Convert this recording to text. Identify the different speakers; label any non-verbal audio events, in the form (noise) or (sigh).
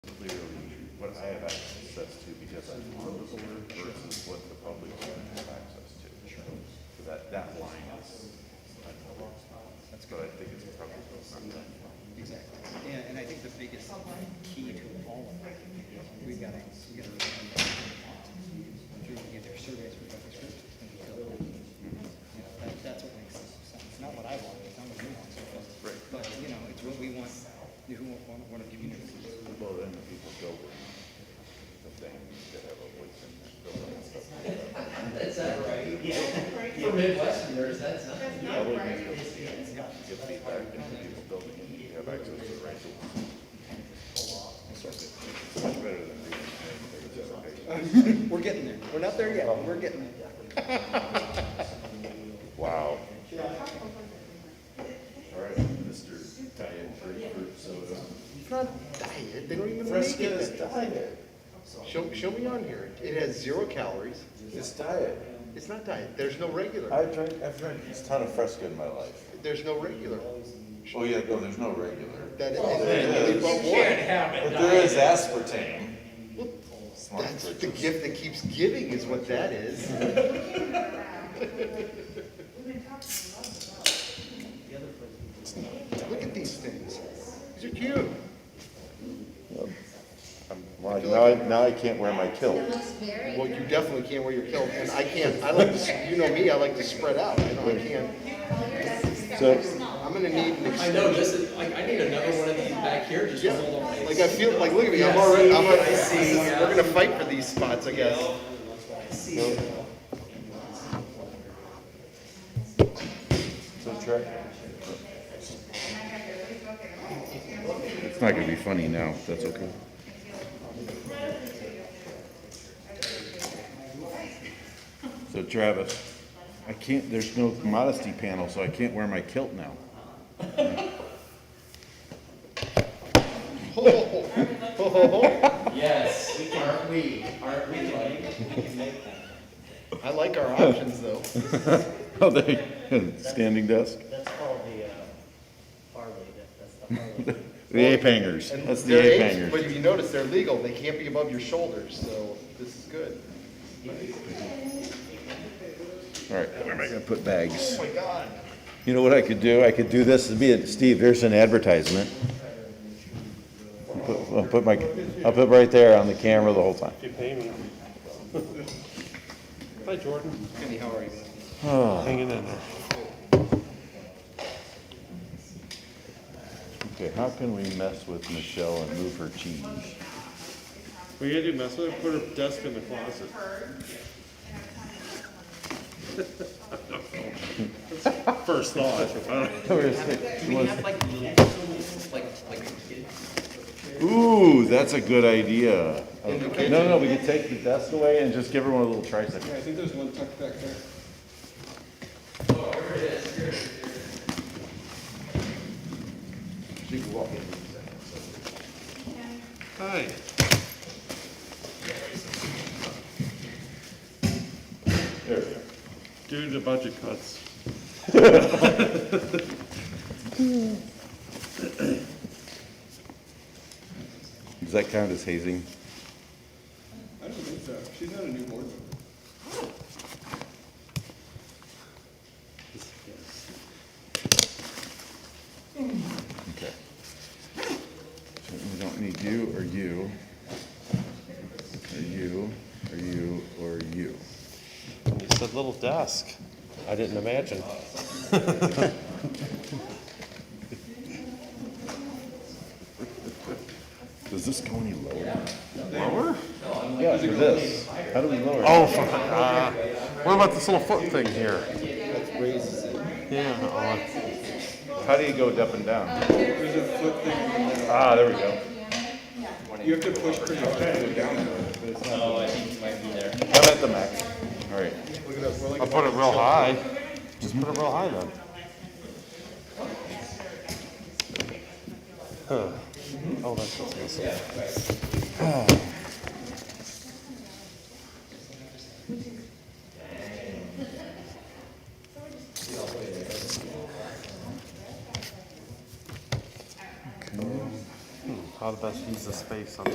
Speaker 1: clearly what I have access to because I'm on the board versus what the public can have access to. So that, that line is, I don't know, that's what I think it's probably not done.
Speaker 2: Exactly. And, and I think the biggest key to all of that, we've got to, we've got to people get their surveys from public scripts and just build it. You know, that, that's what makes sense. It's not what I want, it's not what you want, so, but, but, you know, it's what we want, you know, what, what a community is.
Speaker 1: Well, then the people go with the thing that have a voice in that building and stuff.
Speaker 3: That's not right. (laughs) For Midwesterners, that's not.
Speaker 4: That's
Speaker 1: Yeah,
Speaker 4: not
Speaker 1: we
Speaker 4: right.
Speaker 1: can Give feedback to the people building and you have access to the right tools. So It's much better than being in the presentation.
Speaker 2: We're getting there. We're not there yet, but we're getting there.
Speaker 1: Wow. All right, Mr. Diet Grapefruit Soda.
Speaker 5: uh,
Speaker 6: It's not diet, they don't even make it
Speaker 5: is
Speaker 6: that diet. Show, show me on here, it has zero calories,
Speaker 5: It's diet.
Speaker 6: it's not diet, there's no regular,
Speaker 5: I drink, I've drank a ton of Fresca in my life.
Speaker 6: there's no regular.
Speaker 5: Oh, yeah, no, there's no regular.
Speaker 6: That,
Speaker 5: there
Speaker 6: they
Speaker 5: is.
Speaker 6: brought one.
Speaker 3: have
Speaker 5: But there is aspartame.
Speaker 6: That's the gift that keeps giving is what that is. Look at these things, these are cute.
Speaker 5: Well, now I, now I can't wear my kilt.
Speaker 6: Well, you definitely can't wear your kilt, and I can't, I like, to s- you know me, I like to spread out, I know I can't.
Speaker 5: So,
Speaker 6: I'm gonna need an
Speaker 3: I know, just, like, I need another one of these back here, just to hold on.
Speaker 6: Like I feel like look at me, I'm already. I'm already We're gonna fight for these spots, I guess.
Speaker 5: so Trey,
Speaker 1: It's not gonna be funny now, that's okay. So Travis, I can't, there's no modesty panel, so I can't wear my kilt now. (laughs)
Speaker 6: Ho, ho, ho. Ho, ho, ho.
Speaker 3: Yes, aren't we, aren't we like?
Speaker 6: I like our options though.
Speaker 1: Oh, there, standing desk,
Speaker 7: That's called the, uh, Harley, that- that's the Harley.
Speaker 1: (laughs) the ape hangers,
Speaker 6: And
Speaker 1: that's the
Speaker 6: they're
Speaker 1: ape
Speaker 6: aged,
Speaker 1: hangers.
Speaker 6: But if you notice, they're legal. They can't be above your shoulders, so this is good.
Speaker 1: All right, where am I gonna put bags?
Speaker 6: Oh my God.
Speaker 8: You know what I could do? I could do this and be, a- Steve, here's an advertisement. Put- I'll put my, I'll put right there on the camera the whole time.
Speaker 9: You pay me. Hi, Jordan.
Speaker 6: Kenny, how are you?
Speaker 9: Hanging in there.
Speaker 1: Okay, how can we mess with Michelle and move her cheese? (laughs)
Speaker 9: What you gonna do, mess with her? Put her desk in the closet. (laughs) First thought. (laughs)
Speaker 3: Do we have (laughs) like little, like, like kids?
Speaker 1: Ooh, that's a good idea.
Speaker 6: In the
Speaker 1: No, no, no, we could take the desk away and just give her one of the little tricycles.
Speaker 2: I think there's one tucked back there.
Speaker 6: She can walk in.
Speaker 9: Hi.
Speaker 1: There we go.
Speaker 9: Due to budget cuts.
Speaker 8: Does that count as hazing?
Speaker 2: I don't think so. She's not a new board member.
Speaker 1: Okay. So we don't need you or you, or you, or you, or you.
Speaker 9: You said little desk. I didn't imagine.
Speaker 1: Does this go any lower?
Speaker 8: Yeah, for this. How do we lower?
Speaker 9: Oh, for- uh, what about this little foot thing here? Yeah, oh, I-
Speaker 1: How do you go up and down? Ah, there we go.
Speaker 2: You have to push pretty hard.
Speaker 3: No, I think you might be there.
Speaker 1: I'm at the max. All right.
Speaker 9: I'll put it real high. Just put it real high then. Huh. Oh, that's what's (sighs) missing. Hmm, How to best use the space on